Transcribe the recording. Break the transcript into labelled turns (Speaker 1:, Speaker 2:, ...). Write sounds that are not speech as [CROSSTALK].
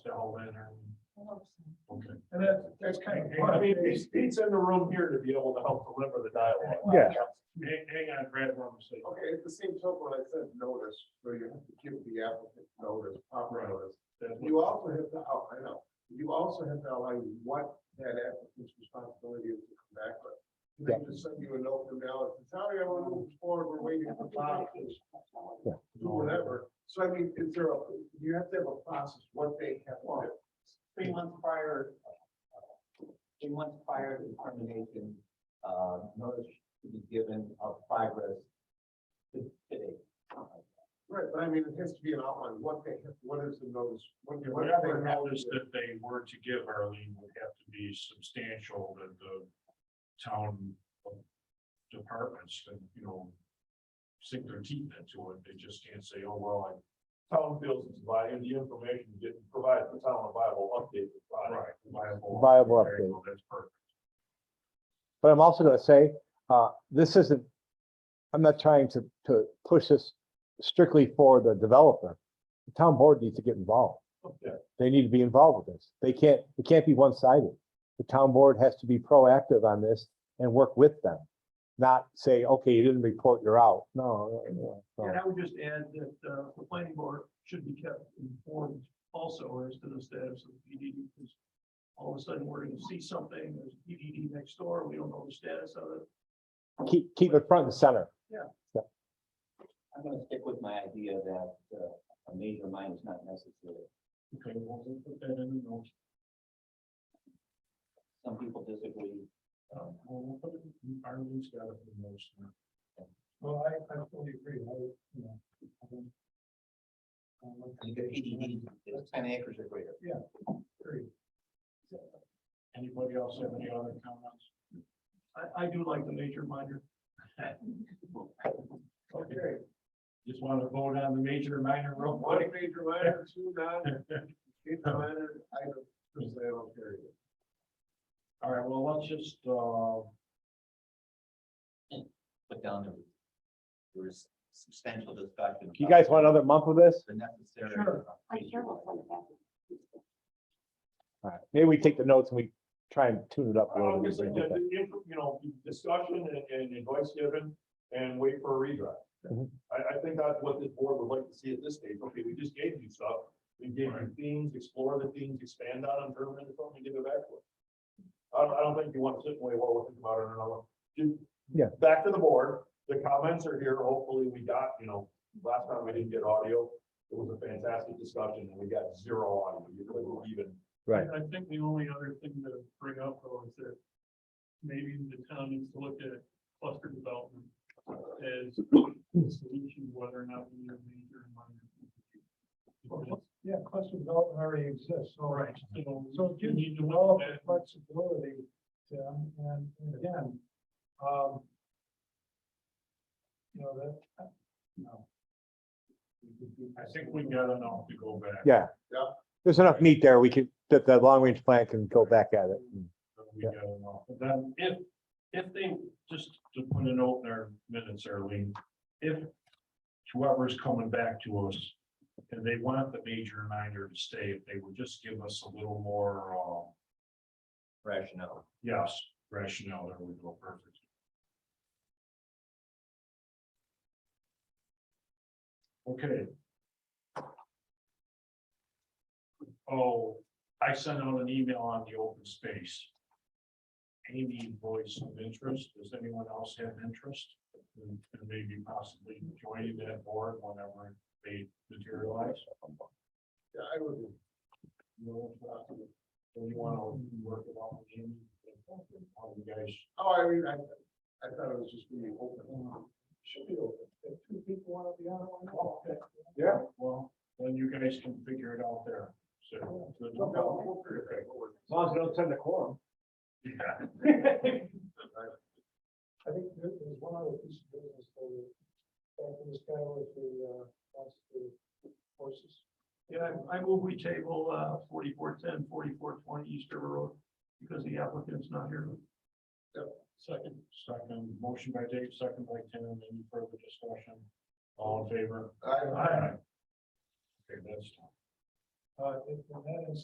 Speaker 1: It's kind of. I mean, he's, he's in the room here to be able to help deliver the dialogue.
Speaker 2: Yeah.
Speaker 1: Hang, hang on, Brad, one second.
Speaker 3: Okay, at the same token, I said notice, so you have to give the applicant notice, proper notice. You also have to, oh, I know, you also have to outline what that applicant's responsibility is to come back with. And They just send you a note from now, it's sorry, I want to move forward, we're waiting for boxes.
Speaker 2: Yeah.
Speaker 3: Whatever, so I mean, is there a, you have to have a process, what they have to do.
Speaker 4: three months prior, three months prior to termination, uh, notice to be given of progress to today.
Speaker 3: Right, but I mean, it has to be an outline, what they, have. what is the notice? what-
Speaker 1: Yeah,
Speaker 3: what do they have
Speaker 1: Whatever
Speaker 3: to
Speaker 1: notice
Speaker 3: do?
Speaker 1: that they were to give Arlene would have to be substantial to the town departments and, you know, sink their teeth into it. They just can't say, oh, well, I. Town feels it's violated, the information didn't provide the town a viable update. Right. Viable.
Speaker 2: Viable
Speaker 1: There you go, That's perfect.
Speaker 2: But I'm also gonna say, uh, this isn't, I'm not trying to, to push this strictly for the developer. The town board needs to get involved.
Speaker 1: Okay.
Speaker 2: They need to be involved with this. They can't, it can't be one-sided. The town board has to be proactive on this and work with them. Not say, okay, you didn't report, you're out. No, no, no, no.
Speaker 5: And I would just add that uh, the planning board should be kept informed also as to the status of the PDD. because All of a sudden, we're gonna see something, there's a PDD next door, we don't know the status of it.
Speaker 2: keep, keep it front and center.
Speaker 4: I'm gonna stick with my idea that, uh, a major mine is not necessary.
Speaker 1: Okay, well, we'll put that in the notes.
Speaker 4: Some people disagree.
Speaker 1: Um, well, we'll put it, in- Arlene's got it in the notes. now.
Speaker 5: Well, I, I totally agree, I, you know.
Speaker 4: The PDD is ten acres or greater.
Speaker 1: Anybody else have any other comments?
Speaker 5: I, I do like the major minor.
Speaker 3: Okay.
Speaker 1: Just want to vote on the major and minor real
Speaker 3: One
Speaker 1: quick. [LAUGHS]
Speaker 3: major minor, two non, eight minor, I don't, personally, I don't care. either.
Speaker 1: All right, well, let's just, uh,
Speaker 4: Put down the, there was substantial discussion.
Speaker 2: You
Speaker 4: about
Speaker 2: guys want another month of this?
Speaker 4: The necessary.
Speaker 5: Sure.
Speaker 6: I care what's on the back.
Speaker 2: All right, maybe we take the notes and we try and tune it up a little bit.
Speaker 1: obviously, the, the, inf- you know, discussion and, and advice given and wait for a redraft.
Speaker 2: Mhm.
Speaker 1: I, I think that's what this board would like to see at this stage. Okay, we just gave you stuff. We gave you themes, explore the themes, expand on them, turn them into something, give it back to us. I don't, I don't think you want to sit and wait, well, we'll think about it another. Just-
Speaker 2: Yeah.
Speaker 1: Back to the board. The comments are here. Hopefully we got, you know, last time we didn't get audio. It was a fantastic discussion and we got zero audio. You really were even.
Speaker 2: Right.
Speaker 5: I think the only other thing to bring up though is that maybe the town needs to look at cluster development as a solution, whether or not we need a major and minor. PDD.
Speaker 3: Yeah, cluster development already exists, so.
Speaker 5: Right, so,
Speaker 3: So it
Speaker 5: you
Speaker 3: gives
Speaker 5: need to
Speaker 3: all
Speaker 5: look
Speaker 3: the
Speaker 5: at,
Speaker 3: flexibility, Tim, and, and again, um. You know, that, uh,
Speaker 1: I think we got enough to go back.
Speaker 2: Yeah.
Speaker 3: Yeah.
Speaker 2: There's enough meat there. We could, that, that long-range plan can go back at it. and-
Speaker 1: that we got them off. But Then if, if they, just to put a note in our minutes, Arlene, if whoever's coming back to us and they want the major and minor to stay, if they would just give us a little more, uh,
Speaker 4: Rationale.
Speaker 1: yes, rationale, there we go, perfect. Okay. Oh, I sent out an email on the open space. Amy voice of interest, does anyone else have interest? And maybe possibly joining that board whenever they materialize?
Speaker 3: yeah, I would,
Speaker 1: You know, uh, Do you want to work it out with Amy? How do you guys?
Speaker 3: oh, I mean, I, I thought it was just being open. Should be open, if two people want to be on it, why not? Yeah.
Speaker 1: Well, then you guys can figure it out there, so.
Speaker 3: I
Speaker 1: long as you don't send a quorum. Yeah.
Speaker 3: [LAUGHS] think there- there's one other piece of business for you. Back to this guy with the, uh, wants to horses.
Speaker 5: yeah, I I move we table, uh, forty-four ten, forty-four twenty East River Road, because the applicant's not here.
Speaker 1: Second, second, motion by Dave, second by Tim, any further discussion? All in favor?
Speaker 3: I,
Speaker 1: Aye. Okay, that's.
Speaker 3: uh, if that is